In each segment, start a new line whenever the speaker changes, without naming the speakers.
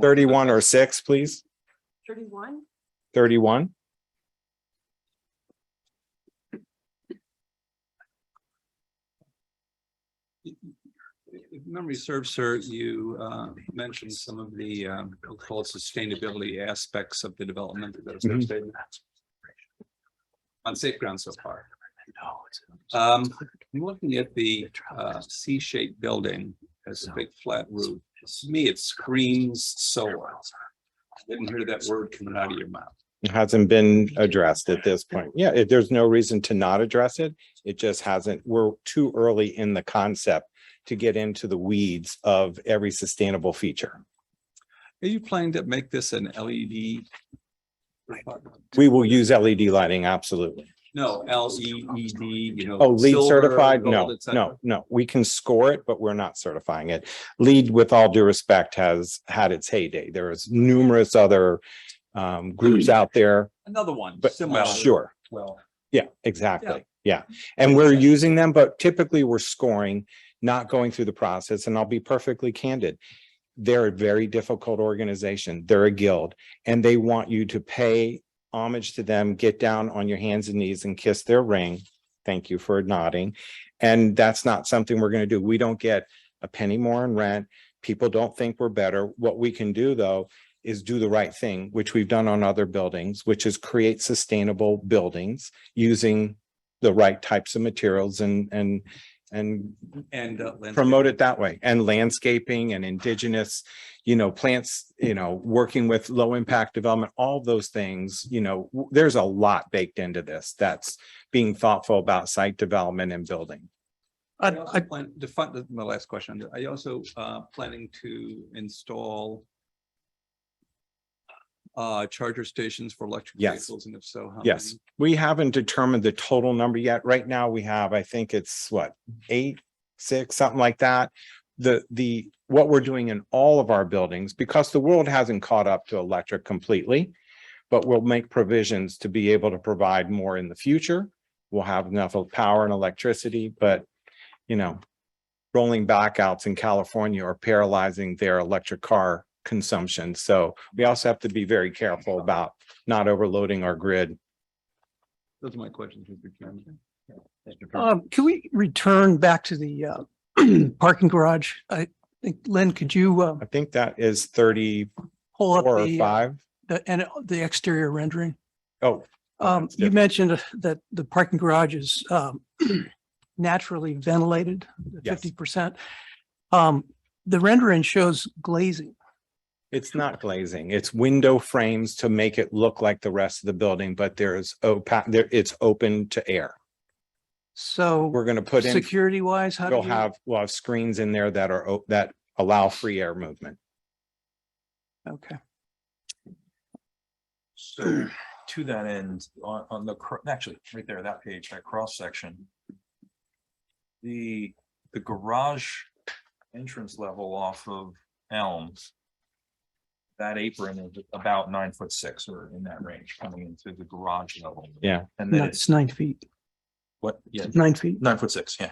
Thirty-one or six, please.
Thirty-one?
Thirty-one.
If memory serves, sir, you uh, mentioned some of the um, so-called sustainability aspects of the development that
Mhm.
is on safe ground so far. Um, I'm looking at the uh, C-shaped building as a big flat roof. To me, it screams solar. Didn't hear that word coming out of your mouth.
It Hasn't been addressed at this point. Yeah, if there's no reason to not address it, it just hasn't, we're too early in the concept to get into the weeds of every sustainable feature.
Are you planning to make this an
E
LED? apartment?
We will use LED lighting, absolutely.
No, L E E D, you know.
Oh, LEED
silver,
certified?
gold,
No,
et cetera.
no, no. We can score it, but we're not certifying it. LEED, with all due respect, has had its heyday. There is numerous other
Hmm.
um groups out there,
Another one.
but uh,
similar.
sure.
Well,
Yeah, exactly. Yeah. And we're using them, but typically we're scoring, not going through the process. And I'll be perfectly candid. They're a very difficult organization. They're a guild and they want you to pay homage to them, get down on your hands and knees and kiss their ring. Thank you for nodding. And that's not something we're going to do. We don't get a penny more in rent. People don't think we're better. What we can do though is do the right thing, which we've done on other buildings, which is create sustainable buildings using the right types of materials and, and, and
and. uh, Lynn-
promote it that way. And landscaping and indigenous, you know, plants, you know, working with low impact development, all those things, you know, w- there's a lot baked into this that's being thoughtful about site development and building.
I
I,
also
I,
plan, to fund, my last question, are you also uh, planning to install uh, charger stations for electric
Yes.
vehicles, and if so, how?
Yes.
many?
We haven't determined the total number yet. Right now, we have, I think it's what, eight, six, something like that. The, the, what we're doing in all of our buildings, because the world hasn't caught up to electric completely. But we'll make provisions to be able to provide more in the future. We'll have enough of power and electricity, but, you know. Rolling backouts in California are paralyzing their electric car consumption. So we also have to be very careful about not overloading our grid
Those are my questions, Mr. Chairman.
um, can we return back to the, uh, parking garage? I think, Lynn, could you, uh,
I think that is thirty-four
pull up
or
the, uh,
five.
the, and the exterior rendering?
Oh,
Um,
that's
you
different.
mentioned that the parking garage is, um, naturally ventilated,
Yes.
fifty percent. Um, the rendering shows glazing.
it's not glazing. It's window frames to make it look like the rest of the building, but there is opa, there, it's open to air.
So
We're gonna put in,
security wise, how do
we'll
you?
have, we'll have screens in there that are, o- that allow free air movement.
Okay,
So to that end, on, on the, cr- actually, right there, that page, that cross section. The, the garage entrance level off of Elms. That apron is about nine foot six or in that range coming into the garage level.
Yeah.
And then it's
that's nine feet,
what, yeah,
nine feet.
nine foot six, yeah.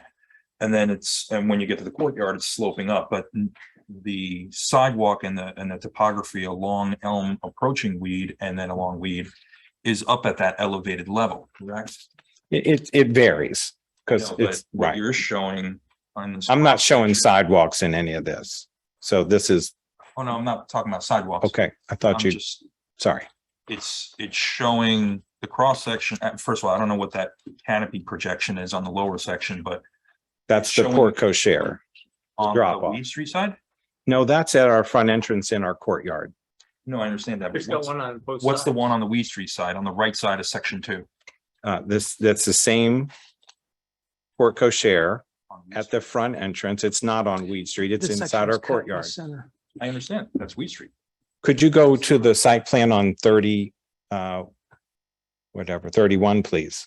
And then it's, and when you get to the courtyard, it's sloping up, but n- the sidewalk and the, and the topography along Elm approaching Weed and then along Weed is up at that elevated level, correct?
It, it, it varies, because
No, but
it's,
what
right.
You're showing on this.
I'm not showing sidewalks in any of this. So this is,
Oh, no, I'm not talking about sidewalks.
okay, I
I'm
thought you,
just
sorry.
it's, it's showing the cross section. uh, First of all, I don't know what that canopy projection is on the lower section, but
That's the
showing-
portico share.
on
Drop
the
off.
Weed Street side?
No, that's at our front entrance in our courtyard.
No, I understand that. but
There's got
what's-
one on both.
What's the
sides.
one on the Weed Street side, on the right side of section two?
Uh, this, that's the same portico share.
On Weed
at
Street.
the front entrance. It's not on Weed Street. It's
This section
inside
is
our
cut in the
courtyard.
Center.
I understand, that's Weed Street.
Could you go to the site plan on thirty, uh, whatever, thirty-one, please?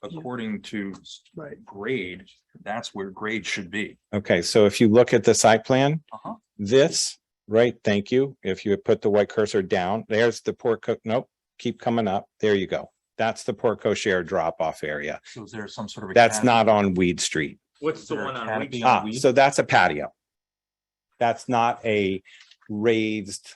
According to
Right.
grade, that's where grade should be.
Okay, so if you look at the site plan,
Uh-huh.
this, right, thank you. If you would put the white cursor down, there's the portico, nope, keep coming up. There you go. That's the portico share drop-off area.
So is there some sort of? a
That's
canopy-
not on Weed Street.
What's the
Is there a
one on
canopy
which?
on
Ah,
Weed?
so that's a patio. That's not a raised